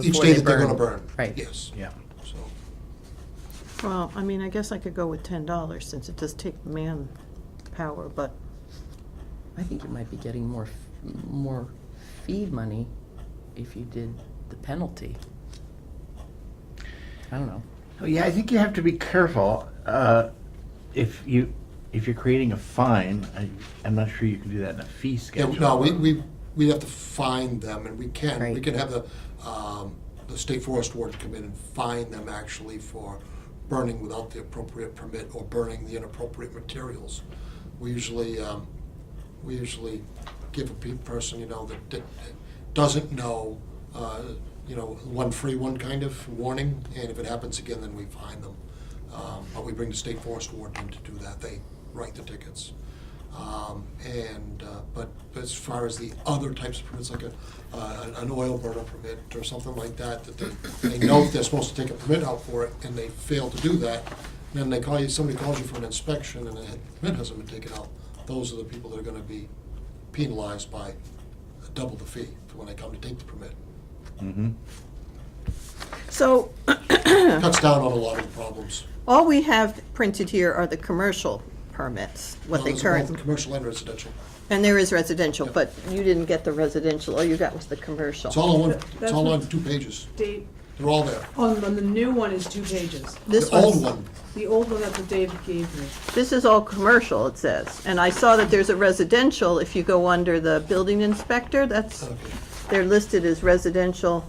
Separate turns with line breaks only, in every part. each
before
day
they
that they're
burn.
gonna burn.
Right.
Yes.
Yeah.
So,
Well, I mean, I guess I could go with ten dollars since it does take manpower, but
I think you might be getting more, f- more fee money if you did the penalty. I don't know.
Oh, Yeah, I think you have to be careful. uh, If you, if you're creating a fine, I, I'm not sure you can do that in a fee
yeah,
schedule.
no, we, we, we have to find them, and we can, we
Right.
can have the, um, the state forest warden come in and find them actually for burning without the appropriate permit or burning the inappropriate materials. We usually, um, we usually give a pe- person, you know, that, that doesn't know, uh, you know, one free one kind of warning, and if it happens again, then we fine them. Um, But we bring the state forest warden in to do that, they write the tickets. Um, And, uh, but as far as the other types of permits, like a, uh, an oil burner permit or something like that, that they, they know they're supposed to take a permit out for it, and they fail to do that, then they call you, somebody calls you for an inspection, and the
Hmm.
permit hasn't been taken out, those are the people that are gonna be penalized by double the fee for when they come to take the permit.
Mhm.
so
Cuts down on a lot of the problems.
all we have printed here are the commercial permits, what
Now,
they
there's
current,
both Commercial and residential.
and there is residential, but you didn't get the residential, all you got was the commercial.
It's all on one, it's
That's
all on
what-
two pages.
Dave,
They're all there.
on, on the new one is two pages.
This
The old
was-
one,
The old one that the David gave me.
This is all commercial, it says, and I saw that there's a residential, if you go under the building inspector, that's,
okay.
they're listed as residential.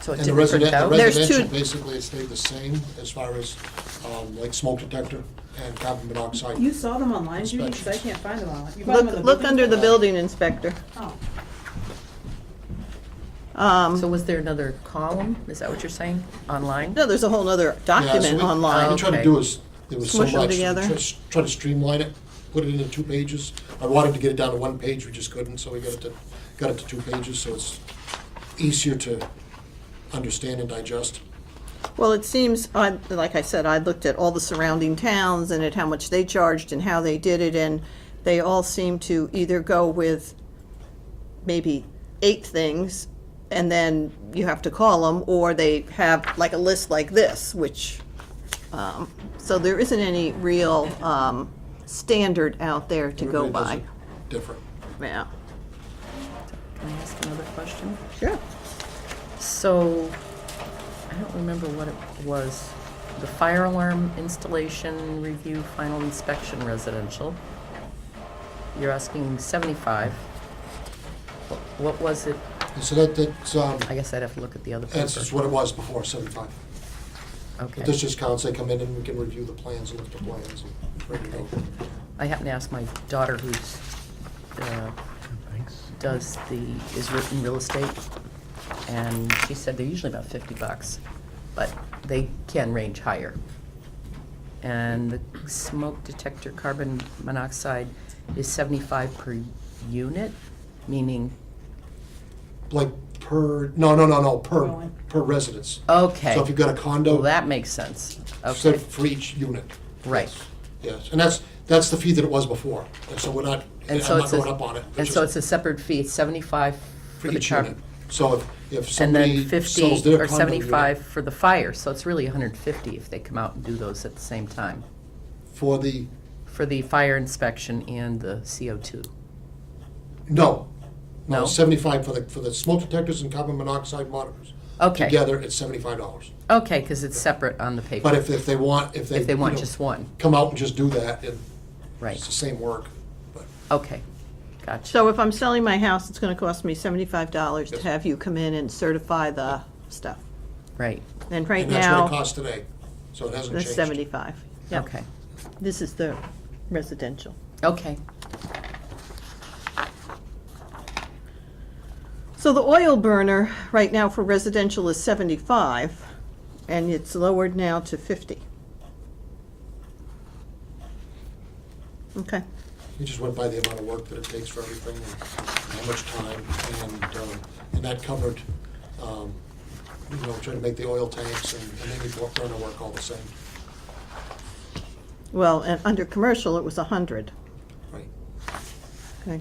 So it
And
didn't
the
print
resident, the
out?
There's
residential
two-
basically it stayed the same as far as, um, like smoke detector and carbon monoxide.
You saw them online, Judy, because I can't find them online. You found them on
Look, look under the
building?
building inspector.
Oh.
Um,
So was there another column? Is that what you're saying? Online?
No, there's a whole other
Yeah, so
document
we- What we
online.
tried to
Okay.
do is, there was so
Smush 'em
much, we
together.
tr- tried to streamline it, put it into two pages. I wanted to get it down to one page, we just couldn't, so we got it to, got it to two pages, so it's easier to understand and digest.
Well, it seems, I, like I said, I looked at all the surrounding towns and at how much they charged and how they did it, and they all seem to either go with maybe eight things, and then you have to call them, or they have like a list like this, which, um, so there isn't any real, um, standard out there to go
Everybody does
by.
it Different.
Yeah,
Can I ask another question?
sure.
So, I don't remember what it was. The fire alarm installation review, final inspection residential. You're asking seventy-five. Wh- What was it?
And so that, that's, um,
I guess I'd have to look at the other
that's just
paper.
what it was before, seventy-five. But this
Okay.
just counts, they come in and we can review the plans, look at the plans, and ready to go.
I happen to ask my daughter who's, uh,
Thanks.
does the, is re- in real estate, and she said they're usually about fifty bucks, but they can range higher. And the smoke detector carbon monoxide is seventy-five per unit, meaning,
Like per, no, no, no, no, per,
Going.
per residence.
okay,
So if you've got a
well,
condo,
that makes sense,
So
okay,
for each unit,
right.
yes. And that's, that's the fee that it was before. And so we're not, I'm
And so
not
it's a-
going up on it.
And so it's a separate fee, it's seventy-five
For
for the
each
carbon.
unit. So if, if
And
somebody
then
sells
fifty
their
or
condo
seventy-five
unit
for the fire, so it's really hundred and fifty if they come out and do those at the same time.
for the,
For the fire inspection and the CO2.
no. No,
No?
seventy-five for the, for the smoke detectors and carbon monoxide monitors.
Okay,
Together, it's seventy-five dollars.
okay, because it's separate on the
But
paper.
if, if they want, if they.
If they
you
want
know,
just one,
Come out and just do that, and
right,
it's the same work. But
okay, gotcha.
So if I'm selling my house, it's gonna cost me seventy-five dollars to
Yes.
have you come in and certify the stuff.
Right,
And right
And that's what it
now,
costs today, so it hasn't
that's
changed.
seventy-five. Yeah.
okay,
This is the residential.
okay.
So the oil burner, right now for residential is seventy-five, and it's lowered now to fifty. Okay,
We just went by the amount of work that it takes for everything and how much time, and, um, and that covered, um, you know, trying to make the oil tanks and, and any work- burner work all the same,
well, and under commercial, it was a hundred,
right?
okay.